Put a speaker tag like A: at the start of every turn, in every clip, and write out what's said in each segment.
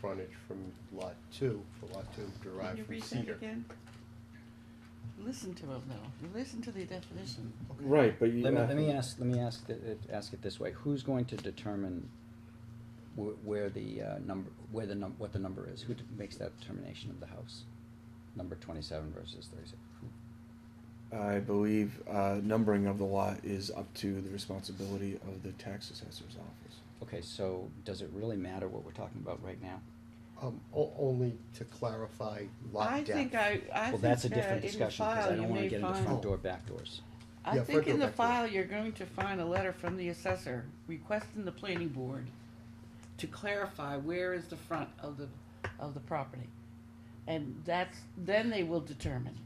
A: frontage from lot two, for lot two derived from
B: Can you
A: Cedar.
B: read that again? Listen to him though, listen to the definition.
C: Right, but you.
D: Let me,
C: uh,
D: let me ask, let me ask, th- it- ask it this way, who's going to determine wh- where the, uh, number, where the num, what the number is, who d- makes that determination of the house? Number twenty-seven versus thirty-six,
E: I believe uh, numbering of the lot is up to the responsibility of the tax assessor's office.
D: okay, so does it really matter what we're talking about right now?
A: Um, o- only to clarify lot
B: I
A: depth.
B: think I, I
D: Well, that's a
B: think, uh,
D: different
B: in the
D: discussion, cause
B: file
D: I
B: you
D: don't wanna
B: may
D: get into
B: find-
D: front door, back doors.
B: I
A: Yeah,
B: think
A: Frederick
B: in the
A: back there.
B: file, you're going to find a letter from the assessor requesting the planning board to clarify where is the front of the, of the property. And that's, then they will determine.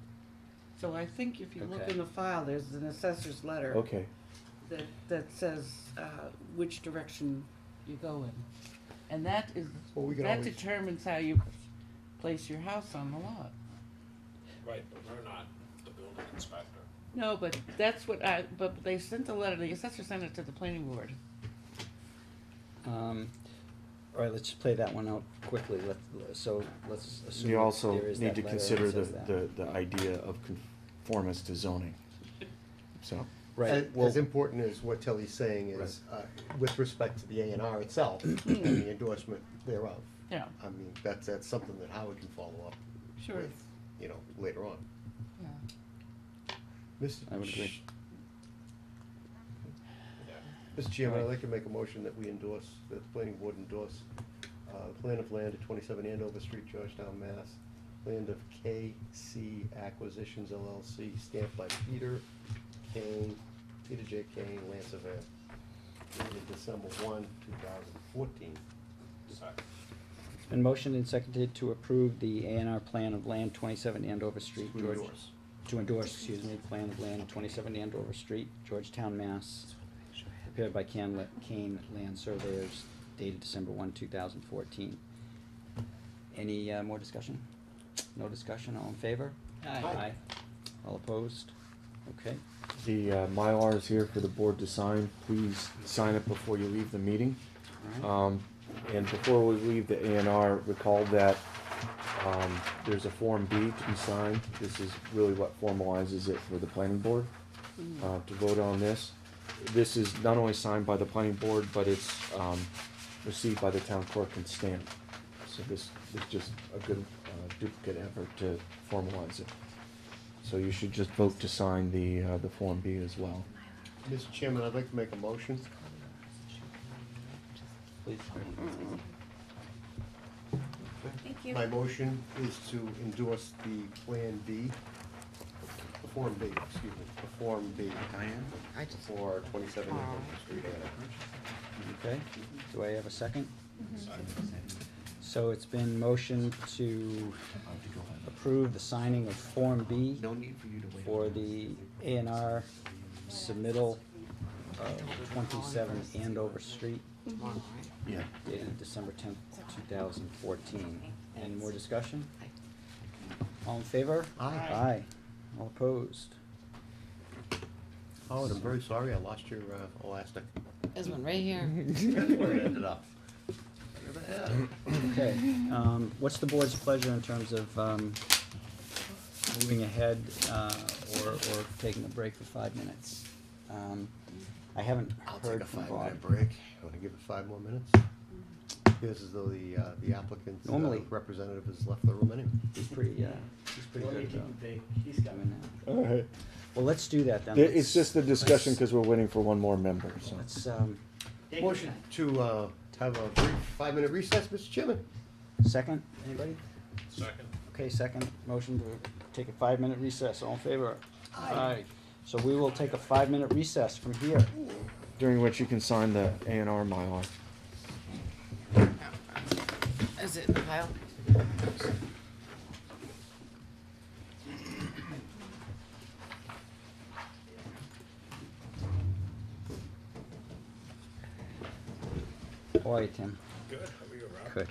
B: So I think if you look
D: Okay.
B: in the file, there's an assessor's letter
E: Okay,
B: that, that says, uh, which direction you go in. And that is,
A: Well, we can
B: that
A: always-
B: determines how you place your house on the lot.
F: Right, but we're not the building inspector.
B: No, but that's what I, but they sent the letter, the assessor sent it to the planning board.
D: Um, all right, let's just play that one out quickly, let, so, let's assume
E: you
D: that
E: also
D: there is
E: need
D: that
E: to
D: letter that
E: consider the,
D: says that.
E: the, the idea of conformance to zoning. So,
D: Right,
A: And
D: well,
A: As important as what Tilly's saying is, uh, with respect to the A and R itself and the endorsement thereof.
B: Yeah,
A: I mean, that's, that's something that Howard can follow up
B: sure.
A: with, you know, later on.
B: Yeah.
A: Mr.
D: I would agree.
A: Ch- Mr. Chairman, I'd like to make a motion that we endorse, that the planning board endorse, uh, the plan of land at twenty-seven Andover Street, Georgetown, Mass. Land of KC Acquisitions LLC, stamped by Peter Kane, Peter J. Kane, Lance Avan. Dated December one, two thousand fourteen.
F: Second.
D: it's been motioned and seconded to approve the A and R plan of land twenty-seven Andover Street, George. to endorse, excuse me, plan of land twenty-seven Andover Street, Georgetown, Mass. Prepared by Can, La- Kane Land Surveyors, dated December one, two thousand fourteen. Any, uh, more discussion? No discussion, all in favor? Aye. All opposed? Okay,
E: the uh, Mylar is here for the board to sign. Please sign it before you leave the meeting.
D: alright,
E: Um, and before we leave the A and R, recall that, um, there's a Form B to be signed. This is really what formalizes it for the planning board, uh, to vote on this. This is not only signed by the planning board, but it's, um, received by the town clerk and stamped. So this is just a good uh, duplicate effort to formalize it. So you should just vote to sign the, uh, the Form B as well.
A: Mr. Chairman, I'd like to make a motion
D: please.
G: Thank you.
A: My motion is to endorse the Plan B, the Form B, excuse me, the Form B
H: I just,
A: for twenty-seven Norfolk Street Annex.
D: Okay, do I have a second? So it's been motioned to approve the signing of Form B
H: no need for you to wait.
D: for the A and R submittal of twenty-seven Andover Street
H: Tomorrow, right?
E: Yeah.
D: dated December tenth, two thousand fourteen. Any more discussion? All in favor?
A: Aye.
D: Aye. All opposed?
A: Howard, Oh, I'm very sorry, I lost your uh, elastic.
G: There's one right here.
A: That's where it ended up. Look at that.
D: Okay, um, what's the board's pleasure in terms of, um, moving ahead, uh, or, or taking a break for five minutes? Um, I haven't
A: I'll take a
D: heard from Bob.
A: five-minute break. You wanna give it five more minutes? Feels as though the, uh, the applicant's uh,
D: Normally-
A: representative has left the room anyway.
D: He's pretty, uh, he's pretty good about doing that.
E: All right.
D: Well, let's do that then.
E: It's
D: Let's-
E: just a discussion
D: let's-
E: because we're waiting for one more member, so.
D: Let's, um,
A: Motion to, uh, have a brief five-minute recess, Mr. Chairman.
D: second, anybody?
F: Second.
D: Okay, second, motion to take a five-minute recess, all in favor? Aye. So we will take a five-minute recess from here.
E: during which you can sign the A and R Mylar.
G: Is it in the pile?
D: How are you, Tim?
F: Good, how are you, Rob?
D: Good.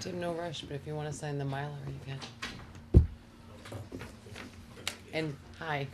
G: Tim, no rush, but if you wanna sign the Mylar, you can. And, hi.